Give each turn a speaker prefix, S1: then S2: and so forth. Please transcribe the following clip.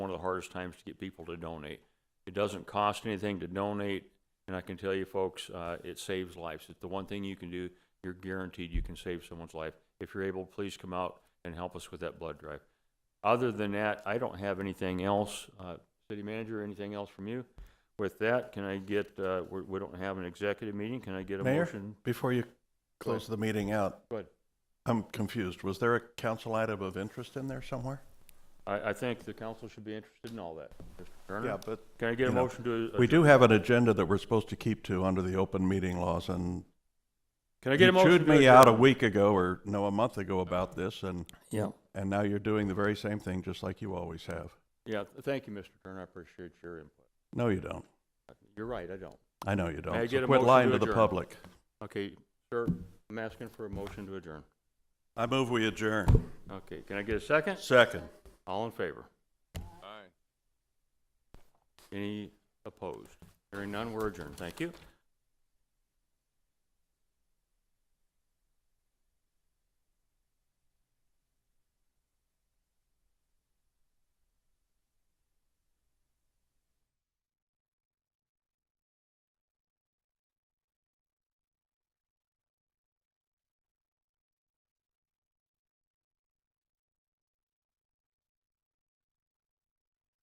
S1: hardest times to get people to donate. It doesn't cost anything to donate, and I can tell you folks, uh, it saves lives. It's the one thing you can do, you're guaranteed you can save someone's life. If you're able, please come out and help us with that blood drive. Other than that, I don't have anything else. Uh, City Manager, anything else from you? With that, can I get, uh, we, we don't have an executive meeting, can I get a
S2: Mayor?
S1: motion?
S2: Before you close the meeting out,
S1: Go ahead.
S2: I'm confused. Was there a council item of interest in there somewhere?
S1: I, I think the council should be interested in all that. Mr. Turner?
S2: but.
S1: Can I get a
S2: you know,
S1: motion to?
S2: We do have an agenda that we're supposed to keep to under the open meeting laws and
S1: Can I get
S2: you
S1: a motion?
S2: chewed
S1: to
S2: me out a
S1: adjourn?
S2: week ago or no, a month ago about this and,
S1: Yeah.
S2: and now you're doing the very same thing just like you always have.
S1: Yeah, th- thank you, Mr. Turner, I appreciate your input.
S2: No, you don't.
S1: You're right, I don't.
S2: I know you don't.
S1: I
S2: So
S1: get a
S2: Quit
S1: motion
S2: lying
S1: to
S2: to the
S1: adjourn?
S2: public.
S1: Okay, sir, I'm asking for a motion to adjourn.
S2: I move we adjourn.
S1: Okay, can I get a second?
S2: Second.
S1: All in favor? Aye. Any opposed? Hearing none, we're adjourned, thank you.